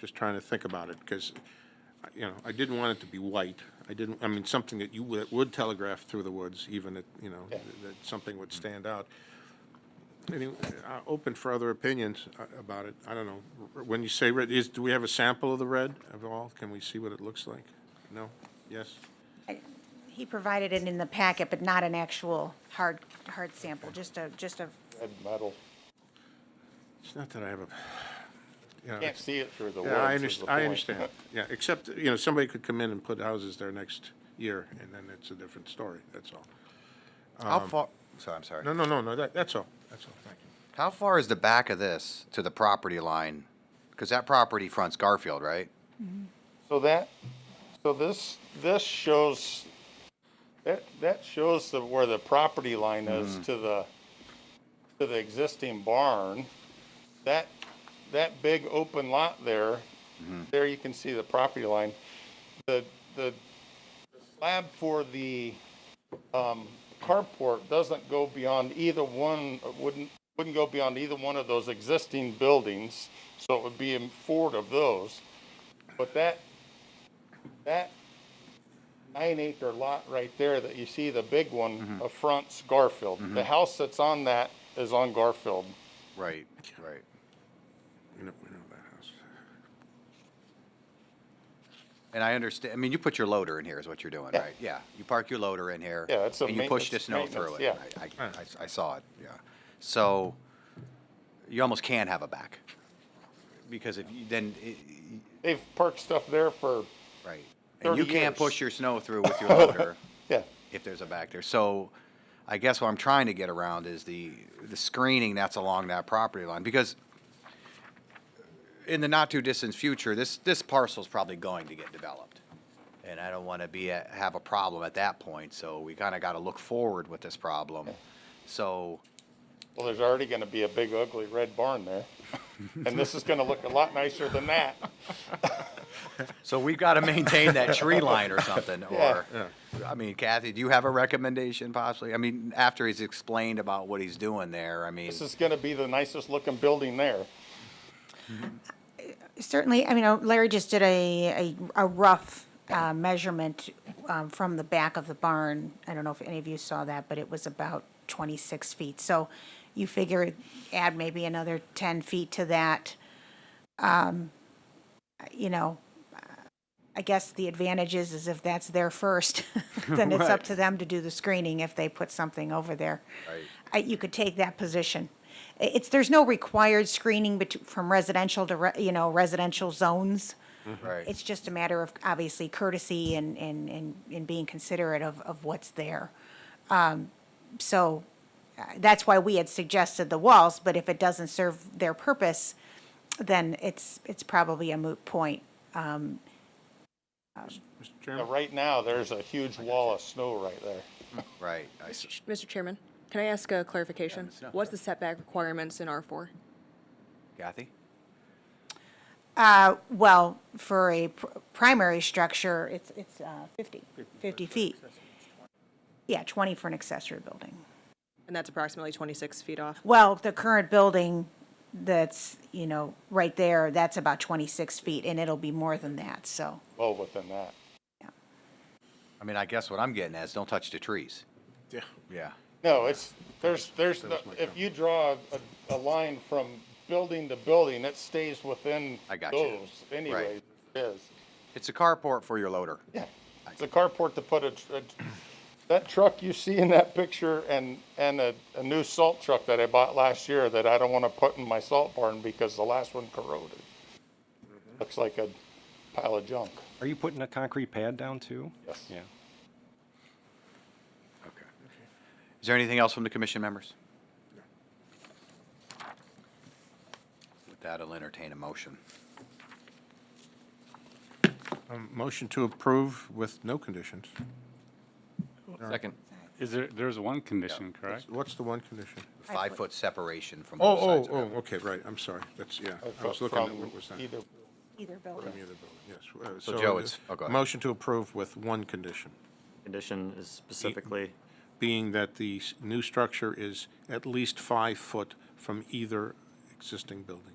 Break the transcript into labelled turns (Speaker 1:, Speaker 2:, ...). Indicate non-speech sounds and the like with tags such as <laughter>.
Speaker 1: Just trying to think about it, because, you know, I didn't want it to be white. I didn't, I mean, something that you would would telegraph through the woods, even at, you know, that something would stand out. Anyway, uh, open for other opinions uh, about it. I don't know. When you say red, is, do we have a sample of the red of all? Can we see what it looks like? No? Yes?
Speaker 2: He provided it in the packet, but not an actual hard, hard sample, just a, just a,
Speaker 3: red metal.
Speaker 1: It's not that I have a, you know,
Speaker 3: Can't see it through the woods.
Speaker 1: Yeah, I
Speaker 3: is the
Speaker 1: understand, I
Speaker 3: point.
Speaker 1: understand, yeah, except, you know, somebody could come in and put houses there next year, and then it's a different story, that's all.
Speaker 4: How far? Um, So I'm sorry.
Speaker 1: No, no, no, no, that, that's all, that's all, thank you.
Speaker 4: How far is the back of this to the property line? Because that property fronts Garfield, right?
Speaker 3: So that, so this, this shows, that, that shows the, where the property line is to the, to the existing barn. That, that big open lot there, there you can see the property line. The, the slab for the, um, carport doesn't go beyond either one, wouldn't, wouldn't go beyond either one of those existing buildings. So it would be in forward of those. But that, that nine acre lot right there that you see, the big one, affronts Garfield. The house that's on that is on Garfield.
Speaker 4: Right, right.
Speaker 1: We know, we know that house.
Speaker 4: And I understand, I mean, you put your loader in here is what you're doing, right? Yeah, you park your loader in here.
Speaker 3: Yeah, it's a
Speaker 4: And you push the
Speaker 3: maintenance-
Speaker 4: snow through it.
Speaker 3: maintenance,
Speaker 4: I, I- I- I saw it, yeah. So you almost can have a back. Because if you, then, it-
Speaker 3: They've parked stuff there for,
Speaker 4: right. And you
Speaker 3: 30
Speaker 4: can't
Speaker 3: years.
Speaker 4: push your snow
Speaker 3: <laughs>
Speaker 4: through with your loader.
Speaker 3: yeah,
Speaker 4: if there's a back there. So I guess what I'm trying to get around is the, the screening that's along that property line, because in the not too distant future, this, this parcel's probably going to get developed. And I don't wanna be, a- have a problem at that point, so we kinda gotta look forward with this problem. So,
Speaker 3: well, there's already gonna be a big ugly red barn there. And this is gonna look a lot nicer than that.
Speaker 4: so we've gotta maintain that tree line or something, or,
Speaker 1: Yeah.
Speaker 4: I mean, Kathy, do you have a recommendation possibly? I mean, after he's explained about what he's doing there, I mean.
Speaker 3: This is gonna be the nicest looking building there.
Speaker 2: certainly, I mean, uh, Larry just did a, a, a rough uh, measurement um, from the back of the barn. I don't know if any of you saw that, but it was about twenty-six feet. So you figure add maybe another ten feet to that. Um, You know, I guess the advantage is, is if that's there first, <laughs> then it's up
Speaker 4: Right.
Speaker 2: to them to do the screening if they put something over there. I- You could take that position. I- It's, there's no required screening bet- from residential to, re- you know, residential zones.
Speaker 4: Right.
Speaker 2: It's just a matter of obviously courtesy and, and, and, and being considerate of, of what's there. Um, so uh, that's why we had suggested the walls, but if it doesn't serve their purpose, then it's, it's probably a moot point.
Speaker 1: Mr.
Speaker 3: Now,
Speaker 1: Chairman?
Speaker 3: Right now, there's a huge wall of snow right there.
Speaker 4: Right, I s-
Speaker 5: Mr. Chairman, can I ask a clarification?
Speaker 4: Ms. Snow.
Speaker 5: What's the setback requirements in R4?
Speaker 4: Kathy?
Speaker 2: Uh, well, for a pr- primary structure, it's, it's uh, 50, 50 feet. Yeah, 20 for an accessory building.
Speaker 5: And that's approximately 26 feet off.
Speaker 2: Well, the current building that's, you know, right there, that's about 26 feet, and it'll be more than that, so.
Speaker 3: Well, within that.
Speaker 4: I mean, I guess what I'm getting at is don't touch the trees.
Speaker 1: Yeah.
Speaker 4: Yeah.
Speaker 3: No, it's, there's, there's, no- if you draw a, a line from building to building, it stays within
Speaker 4: I got you.
Speaker 3: those anyways. It is.
Speaker 4: It's a carport for your loader.
Speaker 3: Yeah. It's a carport to put a, tr- a tr- that truck you see in that picture and, and a, a new salt truck that I bought last year that I don't want to put in my salt barn because the last one corroded.
Speaker 1: Mm-hmm.
Speaker 3: Looks like a pile of junk.
Speaker 6: Are you putting a concrete pad down too?
Speaker 3: Yes.
Speaker 6: Yeah.
Speaker 4: Okay. Is there anything else from the commission members? With that, I'll entertain a motion.
Speaker 1: Um, Motion to approve with no conditions.
Speaker 7: Second. Is there, there's one condition, correct?
Speaker 1: What's the one condition?
Speaker 4: Five-foot separation from both
Speaker 1: Oh,
Speaker 4: sides.
Speaker 1: oh, oh, okay, right, I'm sorry, that's, yeah, I was
Speaker 3: Fro-
Speaker 1: looking at,
Speaker 3: from
Speaker 1: what was that?
Speaker 3: Either,
Speaker 2: Either building.
Speaker 1: From the other building, Yes. uh,
Speaker 4: So, Joe,
Speaker 1: uh,
Speaker 4: it's- oh, go ahead.
Speaker 1: Motion to approve with one condition.
Speaker 8: condition is specifically,
Speaker 1: being that the s- new structure is at least five foot from either existing building.